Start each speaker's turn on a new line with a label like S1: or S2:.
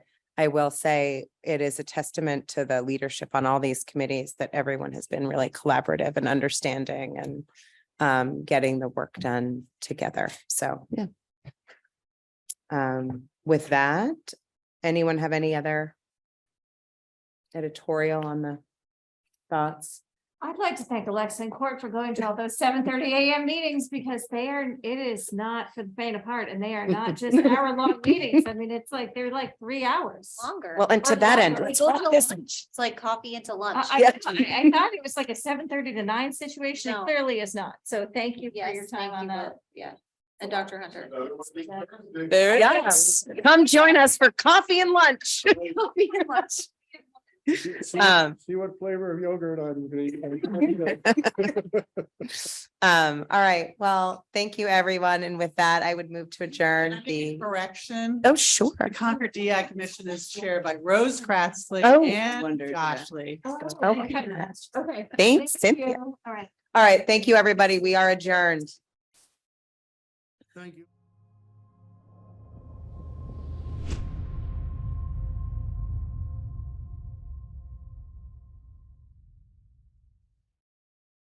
S1: I will say it is a testament to the leadership on all these committees that everyone has been really collaborative and understanding and um, getting the work done together. So.
S2: Yeah.
S1: Um, with that, anyone have any other editorial on the thoughts?
S3: I'd like to thank Alexa and Court for going to all those seven thirty AM meetings because they are, it is not for the faint of heart and they are not just hour long meetings. I mean, it's like, they're like three hours.
S4: Longer.
S1: Well, and to
S3: Or
S1: that end,
S3: longer.
S1: let's
S4: Go
S1: wrap
S4: to
S1: this-
S4: lunch. It's like coffee into lunch.
S3: I, I, I thought it was like a seven thirty to nine situation. It
S4: No.
S3: clearly is not. So thank you for your
S4: Yes,
S3: time
S4: thank
S3: on
S4: you
S3: that.
S4: both. Yeah. And Dr. Hunter.
S2: There it is.
S1: Yes. Come join us for coffee and lunch.
S5: See
S1: Um,
S5: see what flavor of yogurt I'm gonna eat.
S1: Um, all right, well, thank you, everyone. And with that, I would move to adjourn
S6: Can I make a
S1: the,
S6: Correction.
S1: oh, sure.
S6: The Concord DI Commission is chaired by Rose Kratzley
S1: Oh.
S6: and
S2: Wondered, yeah.
S6: Josh Lee.
S3: Oh,
S6: So-
S1: Okay.
S3: Okay.
S1: Thanks,
S3: Thank
S1: Cynthia.
S3: you. All right.
S1: All right, thank you, everybody. We are adjourned.
S5: Thank you.